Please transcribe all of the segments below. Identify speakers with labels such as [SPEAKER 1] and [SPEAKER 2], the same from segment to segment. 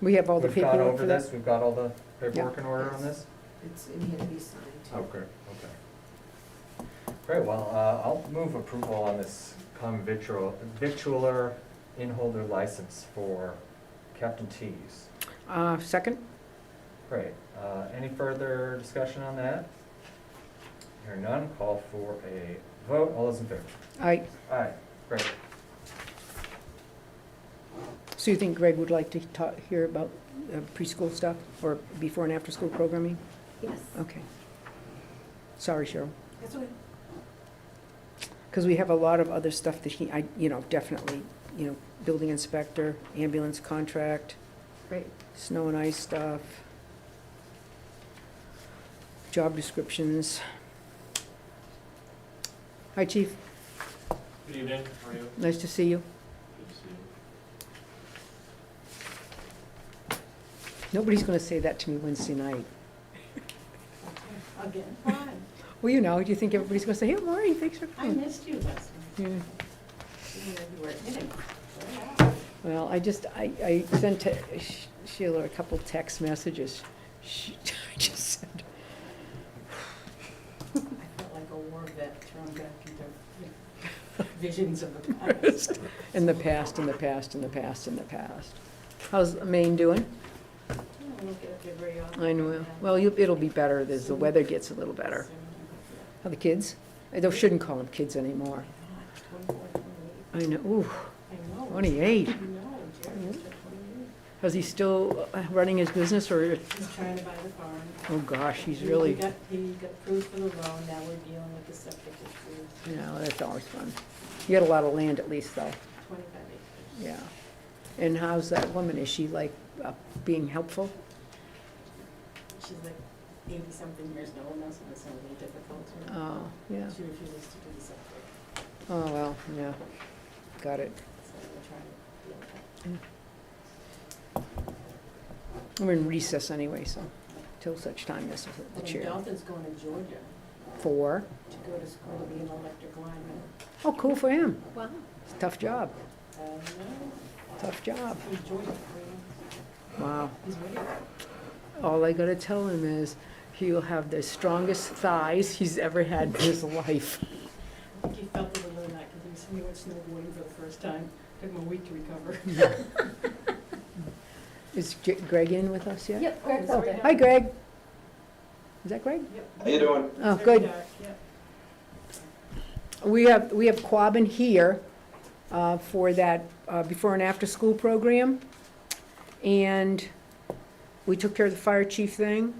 [SPEAKER 1] We have all the
[SPEAKER 2] We've gone
[SPEAKER 1] paperwork
[SPEAKER 2] over
[SPEAKER 1] for this.
[SPEAKER 2] this, we've got all the paperwork
[SPEAKER 1] Yeah.
[SPEAKER 2] in order on this?
[SPEAKER 3] It's, it had to be signed
[SPEAKER 1] Oh.
[SPEAKER 3] too.
[SPEAKER 2] Okay, okay. Great, well, uh, I'll move approval on this common victual, victualler inholder license for Captain T's.
[SPEAKER 1] Uh, second?
[SPEAKER 2] Great, uh, any further discussion on that? Hearing none, call for a vote, all those in favor?
[SPEAKER 1] I,
[SPEAKER 2] Aye, great.
[SPEAKER 1] so you think Greg would like to talk, hear about uh, preschool stuff or before and after school programming?
[SPEAKER 3] Yes.
[SPEAKER 1] Okay. Sorry, Cheryl,
[SPEAKER 3] That's okay.
[SPEAKER 1] because we have a lot of other stuff that he, I, you know, definitely, you know, building inspector, ambulance contract,
[SPEAKER 3] Great.
[SPEAKER 1] snow and ice stuff, job descriptions. Hi, chief,
[SPEAKER 4] Good evening, how are you?
[SPEAKER 1] nice to see you.
[SPEAKER 4] Good to see you.
[SPEAKER 1] Nobody's gonna say that to me Wednesday night.
[SPEAKER 3] Again, hi,
[SPEAKER 1] Well, you know, do you think everybody's gonna say, hey, Lori, thanks for
[SPEAKER 3] I
[SPEAKER 1] coming?
[SPEAKER 3] missed you last night.
[SPEAKER 1] Yeah.
[SPEAKER 3] You know, You were hitting.
[SPEAKER 1] Well, I just, I, I sent to Sh- Sheila a couple text messages. She, I just said,
[SPEAKER 3] I felt like a war vet thrown back into visions of the past.
[SPEAKER 1] in the past, in the past, in the past, in the past. How's Maine doing?
[SPEAKER 3] I don't look at it very often.
[SPEAKER 1] I know, well, you, it'll be better as the weather gets a little better. How the kids? I don't- shouldn't call them kids anymore.
[SPEAKER 3] Twenty-four, twenty-eight,
[SPEAKER 1] I know, ooh,
[SPEAKER 3] I know.
[SPEAKER 1] twenty-eight.
[SPEAKER 3] I know, Jerry's just twenty-eight.
[SPEAKER 1] Is he still uh, running his business or,
[SPEAKER 3] He's trying to buy the farm.
[SPEAKER 1] oh gosh, he's
[SPEAKER 3] He- he
[SPEAKER 1] really,
[SPEAKER 3] got- He got approved for the loan, now we're dealing with the septic issue,
[SPEAKER 1] you know, that's always fun. You got a lot of land at least though.
[SPEAKER 3] twenty-five acres.
[SPEAKER 1] Yeah. And how's that woman? Is she like uh, being helpful?
[SPEAKER 3] She's like eighty-something years old now, so it's gonna be difficult. to-
[SPEAKER 1] Oh, yeah.
[SPEAKER 3] She refuses to do the septic,
[SPEAKER 1] Oh, well, yeah. Got it.
[SPEAKER 3] so we're trying to deal with that.
[SPEAKER 1] We're in recess anyway, so till such time as the
[SPEAKER 3] And
[SPEAKER 1] chair.
[SPEAKER 3] Dalton's going to Georgia
[SPEAKER 1] Four.
[SPEAKER 3] to go to school to be an electric lineman.
[SPEAKER 1] Oh, cool for him.
[SPEAKER 3] Wow.
[SPEAKER 1] It's a tough job.
[SPEAKER 3] Uh, no,
[SPEAKER 1] Tough job.
[SPEAKER 3] he's Georgia, I
[SPEAKER 1] Wow.
[SPEAKER 3] mean, he's ready.
[SPEAKER 1] All I gotta tell him is he'll have the strongest thighs he's ever had in his life.
[SPEAKER 3] I think he felt it a little night because he was snowboarding for the first time. Took him a week to recover.
[SPEAKER 1] Is J- Greg in with us yet?
[SPEAKER 5] Yep,
[SPEAKER 3] Oh,
[SPEAKER 5] Greg
[SPEAKER 3] sorry.
[SPEAKER 5] Felton.
[SPEAKER 1] Hi, Greg. Is that Greg?
[SPEAKER 3] Yep.
[SPEAKER 6] How you doing?
[SPEAKER 1] Oh,
[SPEAKER 3] Very
[SPEAKER 1] good.
[SPEAKER 3] dark, yep.
[SPEAKER 1] We have, we have Quabbin here uh, for that uh, before and after school program. And we took care of the fire chief thing.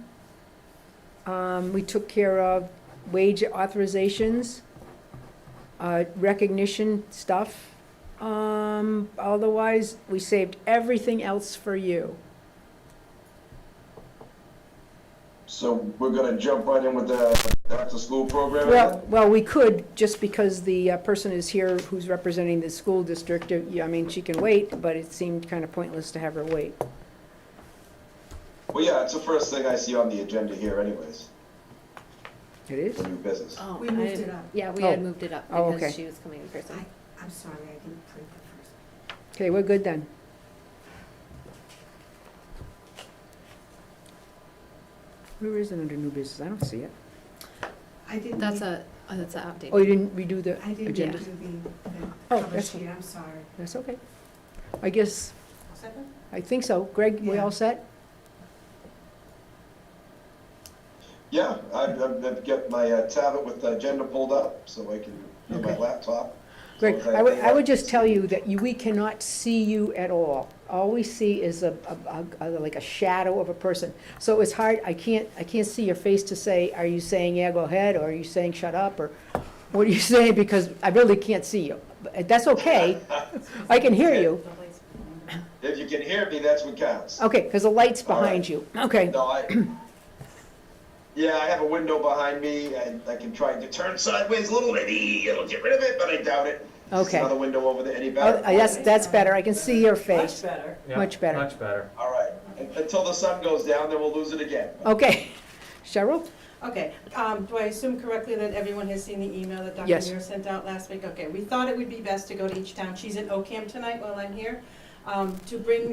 [SPEAKER 1] Um, We took care of wage authorizations, uh, recognition stuff. Um, Otherwise, we saved everything else for you.
[SPEAKER 6] So we're gonna jump right in with the after-school program?
[SPEAKER 1] Well, well, we could, just because the uh, person is here who's representing the school district, uh, yeah, I mean, she can wait, but it seemed kind of pointless to have her wait.
[SPEAKER 6] Well, yeah, it's the first thing I see on the agenda here anyways,
[SPEAKER 1] It is?
[SPEAKER 6] for new business.
[SPEAKER 5] Oh,
[SPEAKER 3] We
[SPEAKER 5] I-
[SPEAKER 3] moved it up.
[SPEAKER 5] Yeah, we
[SPEAKER 1] Oh.
[SPEAKER 5] had moved it up
[SPEAKER 1] Oh,
[SPEAKER 5] because
[SPEAKER 1] okay.
[SPEAKER 5] she was coming in person.
[SPEAKER 3] I'm sorry, I didn't print the first.
[SPEAKER 1] Okay, we're good then. Where is it under new business? I don't see it.
[SPEAKER 3] I didn't.
[SPEAKER 5] That's a, oh, that's an
[SPEAKER 1] Oh, you
[SPEAKER 5] update.
[SPEAKER 1] didn't redo the agenda?
[SPEAKER 5] do
[SPEAKER 1] Oh, that's,
[SPEAKER 3] I'm sorry.
[SPEAKER 1] that's okay. I guess,
[SPEAKER 3] Second?
[SPEAKER 1] I think so. Greg, we
[SPEAKER 3] Yeah.
[SPEAKER 1] all set?
[SPEAKER 6] Yeah, I've, I've I've got my uh, tablet with the agenda pulled up, so I can, on my
[SPEAKER 1] Okay.
[SPEAKER 6] laptop.
[SPEAKER 1] Greg,
[SPEAKER 6] So if
[SPEAKER 1] I would,
[SPEAKER 6] anything
[SPEAKER 1] I would
[SPEAKER 6] else-
[SPEAKER 1] just tell you that you, we cannot see you at all. All we see is a, a- a- like a shadow of a person. So it's hard, I can't, I can't see your face to say, are you saying, yeah, go ahead, or are you saying, shut up, or what are you saying, because I really can't see you. But That's okay, I can hear you.
[SPEAKER 6] If you can hear me, that's what counts.
[SPEAKER 1] Okay, because the light's
[SPEAKER 6] All right.
[SPEAKER 1] behind you. Okay,
[SPEAKER 6] No, I, yeah, I have a window behind me, and I can try to turn sideways a little, maybe it'll get rid of it, but I doubt it. There's
[SPEAKER 1] Okay.
[SPEAKER 6] Another window over there, any
[SPEAKER 1] Oh,
[SPEAKER 6] better?
[SPEAKER 1] that's, that's better, I can see your
[SPEAKER 3] Much
[SPEAKER 1] face.
[SPEAKER 3] better.
[SPEAKER 2] Yeah,
[SPEAKER 1] Much better.
[SPEAKER 2] Much better.
[SPEAKER 6] All right, Un- until the sun goes down, then we'll lose it again.
[SPEAKER 1] Okay, Cheryl?
[SPEAKER 7] Okay, um, do I assume correctly that everyone has seen the email that Dr.
[SPEAKER 1] Yes.
[SPEAKER 7] Muir sent out last week? Okay, we thought it would be best to go to each town. She's in Ocam tonight while I'm here, um, to bring